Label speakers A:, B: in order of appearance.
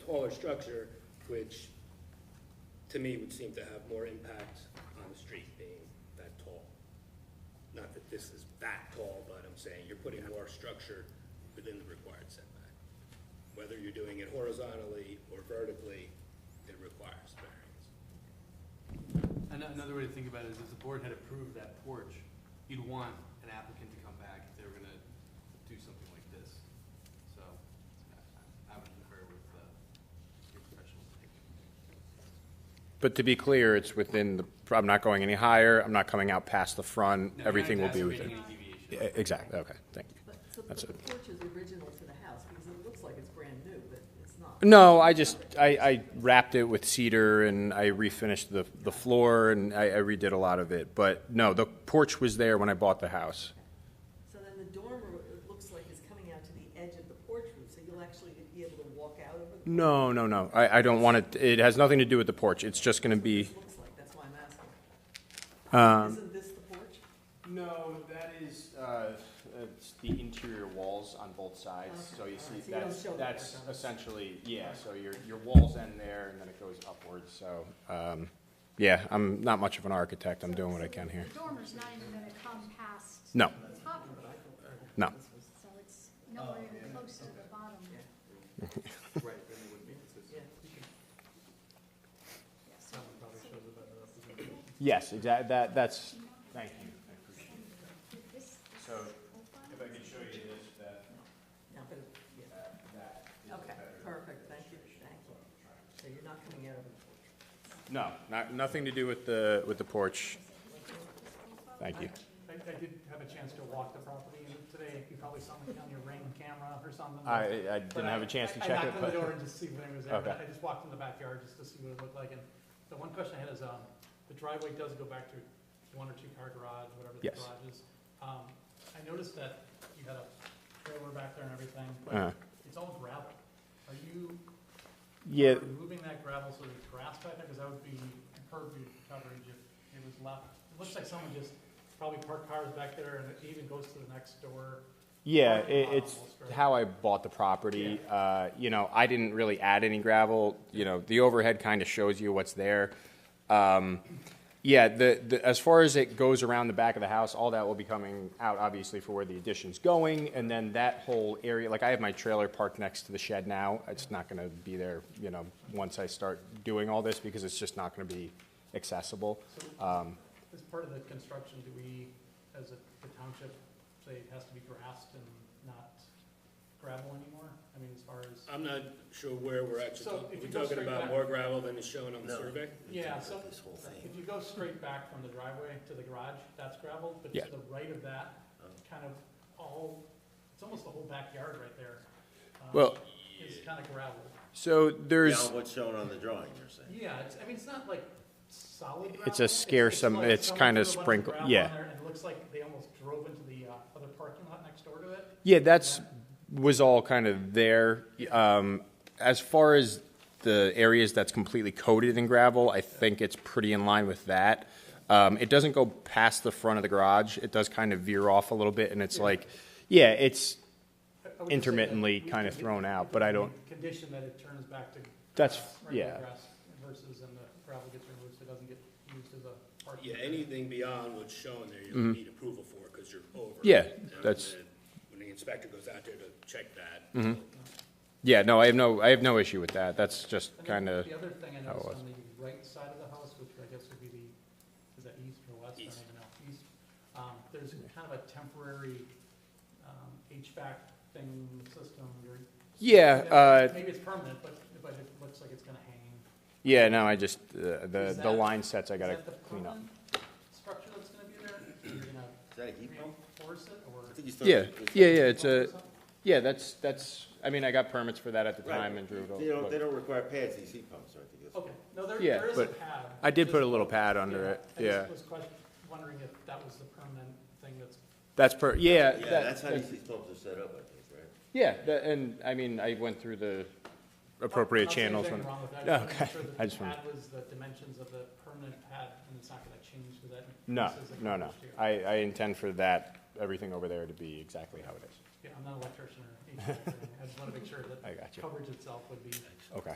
A: taller structure, which to me would seem to have more impact on the street being that tall. Not that this is that tall, but I'm saying you're putting more structure within the required setback. Whether you're doing it horizontally or vertically, it requires variance.
B: An- Another way to think about it is if the board had approved that porch, you'd want an applicant to come back if they were gonna do something like this. So I- I would concur with uh, your professional opinion.
C: But to be clear, it's within the, I'm not going any higher, I'm not coming out past the
B: No,
C: front,
B: you're not
C: everything will be within.
B: exacerbating any deviation.
C: Yeah, Exactly, okay, thank you.
D: But, so but
C: That's
D: the
C: it.
D: porch is original to the house, because it looks like it's brand new, but it's not.
C: No, I just, I, I wrapped it with cedar and I refinished the, the floor and I, I redid a lot of it. But no, the porch was there when I bought the house.
D: So then the dormer, it looks like is coming out to the edge of the porch roof, so you'll actually be able to walk out over the.
C: No, no, no, I, I don't want it, it has nothing to do with the porch, it's just gonna be,
D: It looks like, that's why I'm asking.
C: um.
D: Isn't this the porch?
C: No, that is, uh, it's the interior walls on both sides, so you
D: Okay, alright, so
C: see,
D: you don't
C: that's,
D: show the
C: that's
D: back on this.
C: essentially, yeah, so your, your walls end there and then it goes upwards, so, um, yeah, I'm not much of an architect, I'm doing what I can here.
E: The dormer's not even gonna come past.
C: No.
E: the top of it,
C: No,
E: So it's nowhere even close to the bottom,
B: Right, then it wouldn't be consistent.
D: Yeah.
E: yeah, so
C: yes, exactly, that, that's, thank you, I appreciate it.
E: with this, this
C: So,
E: profile.
C: If I could show you this, that,
D: No, but, it- yeah,
C: that is a
D: okay,
C: better-
D: perfect, thank you, thank you. So you're not coming out over the porch.
C: No, not, nothing to do with the, with the porch. Thank you.
F: I, I did have a chance to walk the property and today. You probably saw me on your ring camera or something.
C: I, I didn't have a chance to
F: But I-
C: check it,
F: I knocked on the door
C: but,
F: and just see when it was there, but
C: Okay.
F: I just walked in the backyard just to see what it looked like. And the one question I had is, um, the driveway does go back to one or two car garage, whatever the
C: Yes.
F: garage is. Um, I noticed that you had a trailer back there and everything,
C: uh,
F: but it's all gravel. Are you
C: yeah,
F: removing that gravel so there's grass back there? Because that would be impervious coverage if it was left. It looks like someone just probably parked cars back there and it even goes to the next door.
C: Yeah,
F: Parking
C: it,
F: lot
C: it's
F: almost, right?
C: how I bought the property. Uh, you know, I didn't really add any gravel. You know, the overhead kind of shows you what's there. Um, yeah, the, the as far as it goes around the back of the house, all that will be coming out obviously for where the addition's going, and then that whole area. Like I have my trailer parked next to the shed now. It's not going to be there. You know, once I start doing all this because it's just not going to be accessible.
F: So
C: Um,
F: As part of the construction, do we, as a the township, say it has to be grassed and not gravel anymore? I mean, as far as,
A: I'm not sure where we're actually,
F: So
A: talking-
F: if
A: we're
F: you go
A: talking
F: straight
A: about
F: back-
A: more gravel than is shown on the survey?
F: yeah, so if you go straight back from the driveway to the garage, that's gravel, but
C: Yeah. Oh.
F: to the right of that, kind of all, it's almost the whole backyard right there. um,
C: Well-
F: Is kind of gravel.
C: so there's.
G: Now, what's shown on the drawing, you're saying?
F: Yeah, it's, I mean, it's not like solid gravel.
C: It's a scarce am-
F: like
C: it's
F: someone
C: kinda
F: threw a bunch
C: sprinkle-
F: gravel on
C: yeah.
F: there And it looks like they almost drove into the uh, other parking lot next door to it.
C: Yeah, that's was all kind of there. Um, as far as the areas that's completely coated in gravel, I think it's pretty in line with that. Um, it doesn't go past the front of the garage. It does kind of veer off a little bit, and it's like, yeah, it's
F: I- I would just say that
C: Intermittently
F: we
C: kinda
F: condi-
C: thrown out,
F: we
C: but I
F: could
C: don't-
F: Condition that it turns back to.
C: That's-
F: grass, regular
C: yeah.
F: grass Versus and the gravel gets removed, so it doesn't get used as a parking.
A: Yeah,
F: area.
A: anything beyond what's shown there, you need approval for, because you're over.
C: Mm-hmm. Yeah,
A: And
C: that's- Mm-hmm.
A: then When the inspector goes out there to check that.
C: yeah. No, I have no, I have no issue with that. That's just
F: And then
C: kind of
F: The other thing I
C: how it
F: noticed
C: was.
F: on the right side of the house, which I guess would be the, is that east or west? I don't
A: East.
F: even know, east. Um, there's a kind of a temporary, um, HVAC thing, system, or.
C: yeah, uh,
F: Maybe it's permanent, but, but it looks like it's gonna hang.
C: yeah. No, I just uh, the
F: Is
C: the
F: that-
C: line sets I gotta
F: Is that the
C: clean up.
F: permanent structure that's gonna be there? You're gonna
G: Is that a heat pump?
F: reinforce it, or?
G: I think he's
C: Yeah,
G: talking-
C: yeah, yeah. It's a yeah. That's that's. I mean, I got permits for that at the
G: Right.
C: time and drew it. all-
G: They don't,
C: but-
G: they don't require pads, these heat pumps, aren't they?
A: Oh,
F: Okay, no, there,
C: Yeah,
F: there is a
C: but
F: pad.
C: I did put a
F: Just-
C: little pad under it,
F: I
C: yeah.
F: just was question- wondering if that was the permanent thing that's,
C: That's per, yeah.
G: Yeah,
C: that-
G: that's how
C: that-
G: these heat pumps are set up, I think, right?
C: Yeah, that- and, I mean, I went through the appropriate
F: Not saying
C: channels.
F: anything
C: when-
F: wrong with that, I
C: Okay,
F: just wanted
C: I
F: to make
C: just
F: sure
C: wanted-
F: that the pad was the dimensions of the permanent pad, and it's not gonna change because that.
C: No,
F: increases the
C: no, no.
F: coverage
C: I,
F: too.
C: I intend for that, everything over there to be exactly how it is.
F: Yeah, I'm not an electrician or anything, I just wanna make sure that
C: I got you.
F: coverage itself would be.
C: Okay.